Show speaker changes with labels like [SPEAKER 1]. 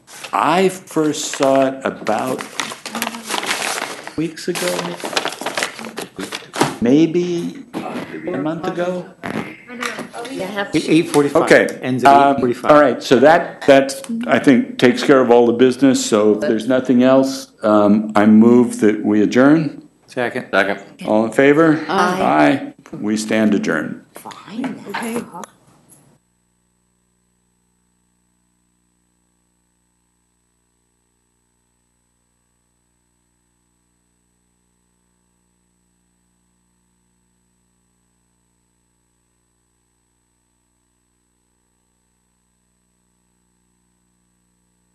[SPEAKER 1] I first saw it about weeks ago, maybe a month ago.
[SPEAKER 2] Eight forty-five.
[SPEAKER 3] Okay.
[SPEAKER 2] Ends at eight forty-five.
[SPEAKER 1] Um, All right, so that, that, I think, takes care of all the business, so if there's nothing else, um, I move that we adjourn.
[SPEAKER 2] Second.
[SPEAKER 3] Second.
[SPEAKER 1] All in favor? Aye. We stand adjourned.
[SPEAKER 4] Fine.